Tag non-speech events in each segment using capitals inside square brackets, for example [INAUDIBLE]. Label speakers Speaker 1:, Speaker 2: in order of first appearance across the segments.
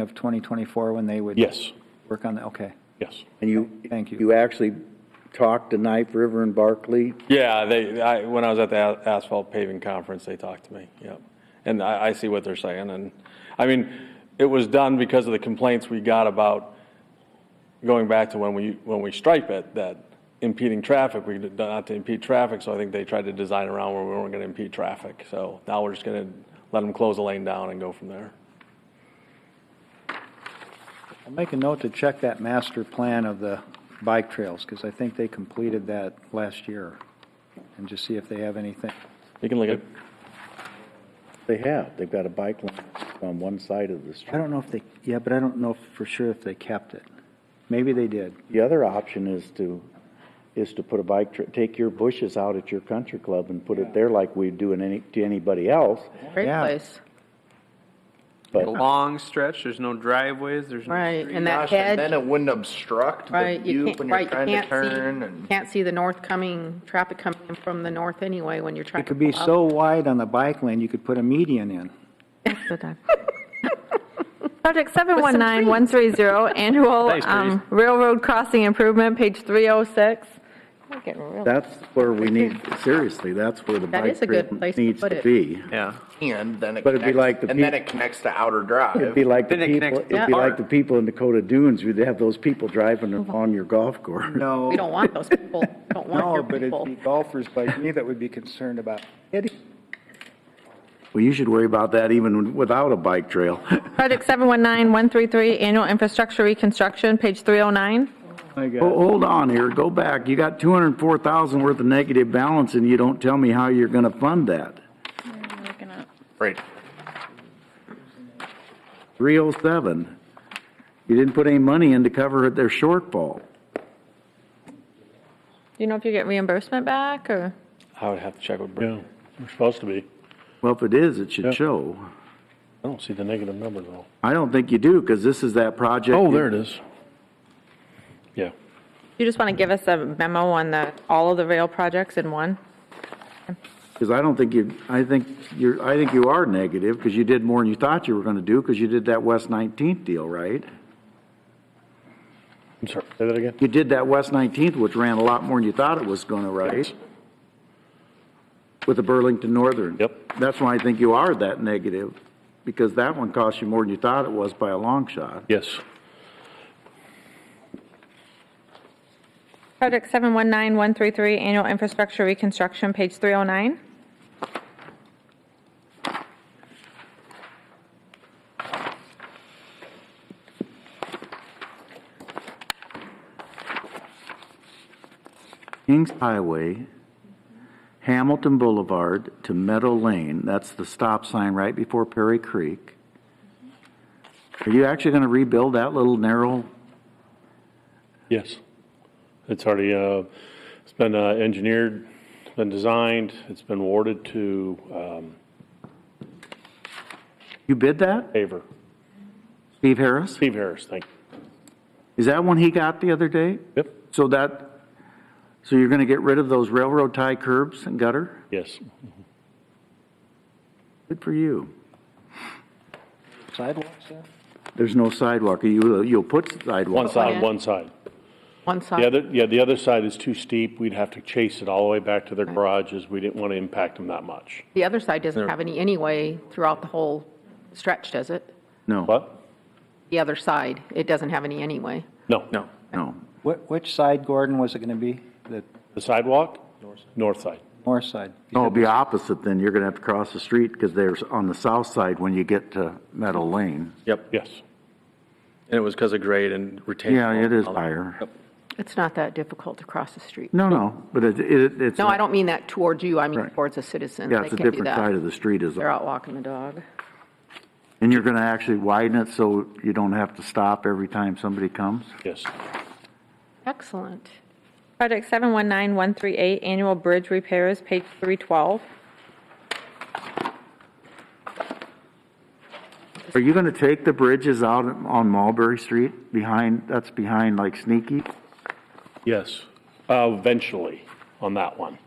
Speaker 1: of 2024 when they would?
Speaker 2: Yes,
Speaker 1: Work on that, okay.
Speaker 2: yes.
Speaker 3: And you,
Speaker 1: Thank you.
Speaker 3: you actually talked to Knife River and Barclay?
Speaker 4: Yeah, they, I, when I was at the a- asphalt paving conference, they talked to me, yep. And I, I see what they're saying, and, I mean, it was done because of the complaints we got about going back to when we, when we stripe it, that impeding traffic, we did not to impede traffic, so I think they tried to design around where we weren't gonna impede traffic. So now we're just gonna let them close the lane down and go from there.
Speaker 1: I'll make a note to check that master plan of the bike trails, because I think they completed that last year, and just see if they have anything.
Speaker 4: You can look at,
Speaker 3: They have, they've got a bike lane on one side of the
Speaker 1: I
Speaker 3: street.
Speaker 1: don't know if they, yeah, but I don't know for sure if they kept it. Maybe they did.
Speaker 3: The other option is to, is to put a bike, tra- take your bushes out at your country club and put it there like we do in any, to anybody else,
Speaker 5: Great
Speaker 1: Yeah.
Speaker 5: place,
Speaker 3: but.
Speaker 6: A long stretch, there's no driveways, there's no
Speaker 5: right,
Speaker 6: street.
Speaker 5: and that
Speaker 7: Gosh, and then
Speaker 5: hedge,
Speaker 7: it wouldn't obstruct the
Speaker 5: right, you
Speaker 7: view
Speaker 5: can't,
Speaker 7: when
Speaker 5: right,
Speaker 7: you're
Speaker 5: you
Speaker 7: trying to
Speaker 5: can't
Speaker 7: turn
Speaker 5: see,
Speaker 7: and.
Speaker 5: can't see the north coming, traffic coming in from the north anyway when you're trying
Speaker 1: It
Speaker 5: to
Speaker 1: could be
Speaker 5: pull
Speaker 1: so
Speaker 5: up.
Speaker 1: wide on the bike lane, you could put a median in.
Speaker 8: Project 719130, annual um, railroad crossing improvement, page 306. We're getting real-
Speaker 3: That's where we need, seriously, that's where the
Speaker 5: That
Speaker 3: bike
Speaker 5: is a good
Speaker 3: trail
Speaker 5: place to
Speaker 3: needs
Speaker 5: put
Speaker 3: to
Speaker 5: it.
Speaker 3: be.
Speaker 6: Yeah.
Speaker 7: And then it
Speaker 3: But it'd be like
Speaker 7: connects,
Speaker 3: the
Speaker 7: and then
Speaker 3: peop-
Speaker 7: it connects to outer drive.
Speaker 3: It'd be like the
Speaker 6: Then it
Speaker 3: people,
Speaker 6: connects to the
Speaker 3: it'd be like
Speaker 6: park.
Speaker 3: the people in Dakota Dunes, you'd have those people driving on your golf course.
Speaker 1: No.
Speaker 5: We don't want
Speaker 8: [LAUGHS]
Speaker 5: those people, don't want
Speaker 1: No,
Speaker 5: your
Speaker 1: but it'd
Speaker 5: people.
Speaker 1: be golfers like me that would be concerned about hitting.
Speaker 3: Well, you should worry about that even without a bike trail.
Speaker 8: Project 719133, annual infrastructure reconstruction, page 309.
Speaker 1: My
Speaker 3: Ho-
Speaker 1: God.
Speaker 3: Hold on here, go back. You got 204,000 worth of negative balance and you don't tell me how you're going to fund that.
Speaker 7: Right.
Speaker 3: 307. You didn't put any money in to cover their shortfall.
Speaker 8: Do you know if you get reimbursement back, or?
Speaker 4: I would have to check with Brent.
Speaker 2: Yeah, we're supposed to be.
Speaker 3: Well, if it is, it
Speaker 2: Yeah.
Speaker 3: should show.
Speaker 2: I don't see the negative number though.
Speaker 3: I don't think you do because this is that project.
Speaker 2: Oh, there it is. Yeah.
Speaker 8: You just want to give us a memo on the, all of the rail projects in one?
Speaker 3: Because I don't think you, I think you're, I think you are negative because you did more than you thought you were going to do because you did that West 19th deal, right?
Speaker 2: I'm sorry, say that again?
Speaker 3: You did that West 19th, which ran a lot more than you thought it was going to, right? With the Burlington Northern.
Speaker 2: Yep.
Speaker 3: That's why I think you are that negative, because that one cost you more than you thought it was by a long shot.
Speaker 2: Yes.
Speaker 8: Project 719133, annual infrastructure reconstruction, page 309.
Speaker 3: Kings Highway, Hamilton Boulevard to Meadow Lane, that's the stop sign right before Perry Creek. Are you actually going to rebuild that little narrow?
Speaker 2: Yes. It's already, uh, it's been uh, engineered, it's been designed, it's been awarded to um,
Speaker 3: You bid that?
Speaker 2: Paver.
Speaker 3: Steve Harris?
Speaker 2: Steve Harris, thank you.
Speaker 3: Is that one he got the other day?
Speaker 2: Yep,
Speaker 3: So that, so you're going to get rid of those railroad tie curbs and gutter?
Speaker 2: yes.
Speaker 3: Good for you.
Speaker 1: Sidewalks there?
Speaker 3: There's no sidewalk. You, you'll put
Speaker 2: One
Speaker 3: sidewalk.
Speaker 2: side, one side.
Speaker 5: One
Speaker 2: The
Speaker 5: side,
Speaker 2: other, yeah, the other side is too steep. We'd have to chase it all the way back to their garages. We didn't want to impact them that much.
Speaker 5: the other side doesn't have any anyway throughout the whole stretch, does it?
Speaker 3: No,
Speaker 2: What?
Speaker 5: The other side, it doesn't have any anyway.
Speaker 2: No. No.
Speaker 3: no.
Speaker 1: Wh- Which side, Gordon, was it going to be? The
Speaker 2: The sidewalk? North side.
Speaker 1: north side?
Speaker 3: No, it'll be opposite then. You're going to have to cross the street because there's on the south side when you get to Meadow Lane.
Speaker 4: Yep,
Speaker 2: Yes.
Speaker 4: and it was because of grade and retention.
Speaker 3: Yeah, it is higher.
Speaker 5: It's not that difficult to cross the street.
Speaker 3: No, no, but it, it, it's.
Speaker 5: No, I don't mean that towards you, I mean
Speaker 3: Right.
Speaker 5: towards the citizens.
Speaker 3: Yeah,
Speaker 5: They
Speaker 3: it's a
Speaker 5: can do
Speaker 3: different
Speaker 5: that.
Speaker 3: side of the street is,
Speaker 5: They're out walking the dog.
Speaker 3: and you're going to actually widen it so you don't have to stop every time somebody comes?
Speaker 2: Yes.
Speaker 5: Excellent.
Speaker 8: Project 719138, annual bridge repairs, page 312.
Speaker 3: Are you going to take the bridges out on Mulberry Street behind, that's behind like Sneaky?
Speaker 2: Yes. Uh, Eventually, on that one.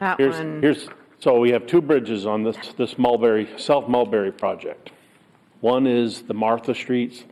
Speaker 5: That
Speaker 2: Here's,
Speaker 5: one,
Speaker 2: here's, so we have two bridges on this, this Mulberry, South Mulberry project. One is the Martha Streets,